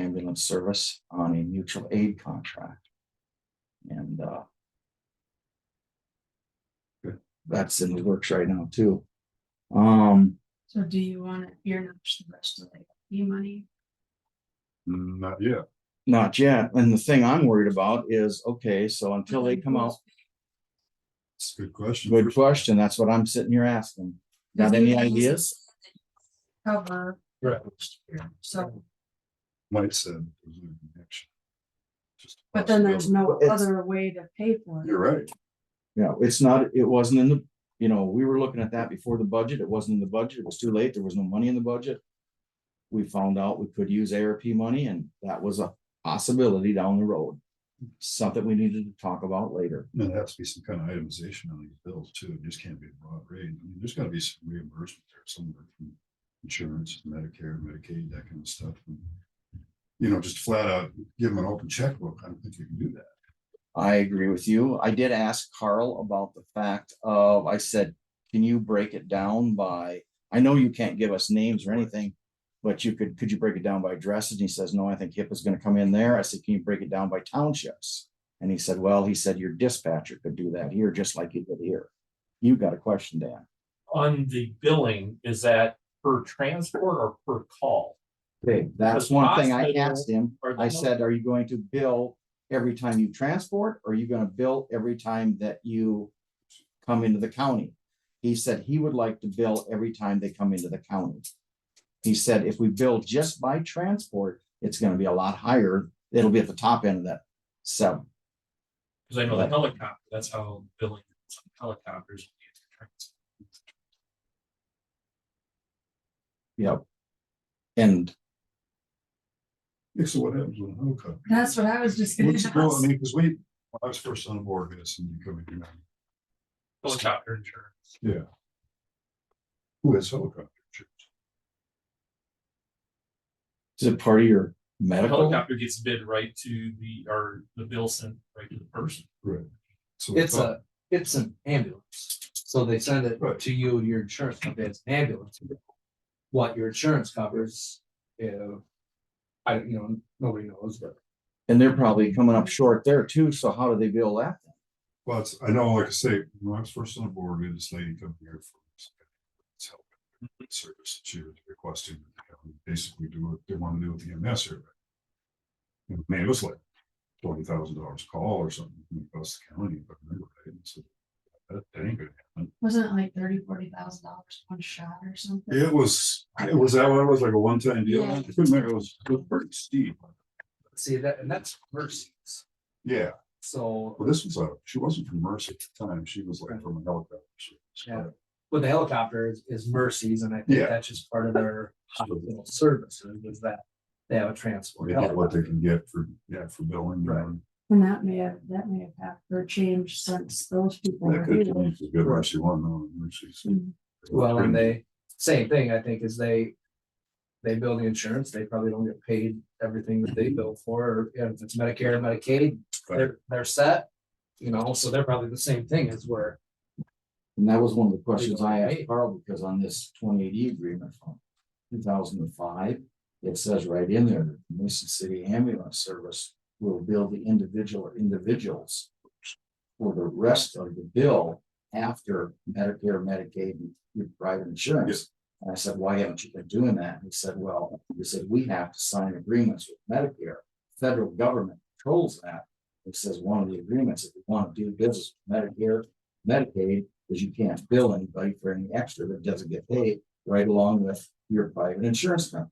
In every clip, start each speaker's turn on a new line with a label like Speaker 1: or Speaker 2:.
Speaker 1: ambulance service on a mutual aid contract. And, uh. That's in the works right now too. Um,
Speaker 2: So do you want to earmark the rest of the E money?
Speaker 3: Mm, Not yet.
Speaker 1: not yet. And the thing I'm worried about is, okay, so until they come out,
Speaker 3: It's a good question.
Speaker 1: good question, that's what I'm sitting here asking. Got any ideas?
Speaker 2: Cover.
Speaker 3: Right.
Speaker 2: last year. So,
Speaker 3: Mike said. there's no connection. Just a
Speaker 2: but then there's no
Speaker 1: It's-
Speaker 2: other way to pay for
Speaker 3: possibility.
Speaker 2: it.
Speaker 3: You're right.
Speaker 1: Yeah, it's not, it wasn't in the, you know, we were looking at that before the budget. It wasn't in the budget. It was too late. There was no money in the budget. We found out we could use ARP money and that was a possibility down the road. Something we needed to talk about later.
Speaker 3: There has to be some kind of itemization on these bills too. It just can't be a broad rate. I mean, there's gotta be some reimbursement there somewhere from insurance, Medicare, Medicaid, that kind of stuff. And, You know, just flat out give them an open checkbook. I don't think you can do that.
Speaker 1: I agree with you. I did ask Carl about the fact of, I said, can you break it down by, I know you can't give us names or anything. But you could, could you break it down by addresses? And he says, no, I think HIPAA is gonna come in there. I said, can you break it down by townships? And he said, well, he said, your dispatcher could do that here, just like you did here. You got a question, Dan?
Speaker 4: on the billing, is that per transport or per call?
Speaker 1: Okay, that's
Speaker 4: The
Speaker 1: one thing I
Speaker 4: hospital
Speaker 1: asked him.
Speaker 4: or the
Speaker 1: I
Speaker 4: health-
Speaker 1: said, are you going to bill every time you transport? Or are you gonna bill every time that you come into the county? He said he would like to bill every time they come into the county. He said if we bill just by transport, it's gonna be a lot higher. It'll be at the top end of that seven.
Speaker 4: Cause I know the helicopter, that's how billing is on helicopters.
Speaker 1: Yep. And
Speaker 3: Yeah, So what happens when a helicopter?
Speaker 2: That's what I was just gonna
Speaker 3: What's the bill? I
Speaker 2: ask.
Speaker 3: mean, because we, when I was first on board, we had somebody coming in.
Speaker 4: Helicopter insurance.
Speaker 3: Yeah. Who has helicopter insurance?
Speaker 1: is it part of your
Speaker 4: The
Speaker 1: medical?
Speaker 4: Helicopter gets bid right to the, or the bill sent right to the person.
Speaker 3: Right. So
Speaker 5: It's
Speaker 3: thought-
Speaker 5: a, it's an ambulance, so they send it
Speaker 3: Right.
Speaker 5: to you, your insurance company, it's an ambulance. What your insurance covers, uh, I, don't- you know, nobody knows, but.
Speaker 1: And they're probably coming up short there too, so how do they bill that?
Speaker 3: Well, it's, I know, like I say, when I was first on the board, we had this lady come here for some kind of it's help
Speaker 5: Mm-hmm.
Speaker 3: service. She was requesting that the county basically do what they want to do with the EMS survey. And Man, it was like twenty thousand dollars a call or something across the county, but remember, right? And so that, that ain't gonna happen.
Speaker 2: Wasn't it like thirty, forty thousand dollars one shot or something?
Speaker 3: It was, it was that one, it was like a one-time deal. I couldn't remember, it was, it was pretty steep.
Speaker 5: See, that, and that's Mercy's,
Speaker 3: Yeah,
Speaker 5: so,
Speaker 3: well, this was a, she wasn't from Mercy at the time. She was like from a helicopter. service,
Speaker 5: Yeah. but the helicopter is, is Mercy's, and I think
Speaker 3: Yeah.
Speaker 5: that's just part of their hospital services, is that they have a transport.
Speaker 3: Yeah, what they
Speaker 5: helicopter.
Speaker 3: can get for, yeah, for billing. you know,
Speaker 5: Right.
Speaker 3: and-
Speaker 2: And that may have, that may have happened or changed since those people
Speaker 3: That
Speaker 2: were
Speaker 3: could
Speaker 2: here.
Speaker 3: change as good as she won, though, and she's-
Speaker 2: Mm.
Speaker 5: Well,
Speaker 3: Hmm.
Speaker 5: and they, same thing, I think, is they, they bill the insurance, they probably don't get paid everything that they bill for, or if it's Medicare, Medicaid, they're, they're set. You know, so they're probably the same thing as where,
Speaker 1: And that was one of the questions I asked
Speaker 5: Right.
Speaker 1: Carl, because on this twenty eighty agreement from two thousand and five, it says right in there, that the Mason City Ambulance Service will bill the individual or individuals for the rest of the bill after Medicare, Medicaid, and your private insurance. And I said, why haven't you been doing that? And he said, well, he said, we have to sign agreements with Medicare. Federal government controls that. It says one of the agreements, if you want to do business with Medicare, Medicaid, is you can't bill anybody for any extra that doesn't get paid right along with your private insurance company.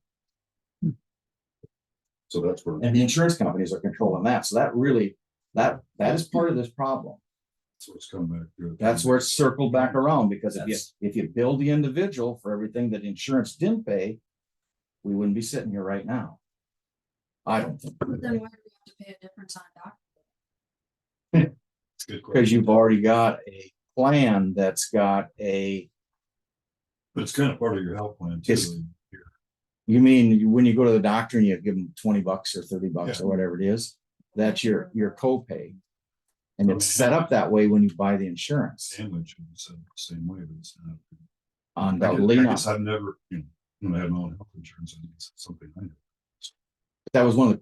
Speaker 3: So that's where,
Speaker 1: And the insurance companies are controlling that. So that really, that, that is part of this problem.
Speaker 3: that's what's come back. to.
Speaker 1: That's where it's circled back around because if you,
Speaker 5: That's-
Speaker 1: if you bill the individual for everything that insurance didn't pay, we wouldn't be sitting here right now. I don't think,
Speaker 2: But Then why do we have to pay a difference on doctor?
Speaker 3: It's a good question.
Speaker 1: because you've already got a plan that's got a,
Speaker 3: But it's kind of part of your health plan too.
Speaker 1: It's- you mean, you- when you go to the doctor and you give them twenty bucks or thirty bucks
Speaker 3: Yeah.
Speaker 1: or whatever it is, that's your, your copay. And it's set up that way when you buy the insurance.
Speaker 3: Sandwich, and it's the same way, but it's not. I guess-
Speaker 1: Undoubtedly
Speaker 3: I
Speaker 1: not.
Speaker 3: guess I've never, you know, when I had my own health insurance, I think it's something I know.
Speaker 1: that was one of the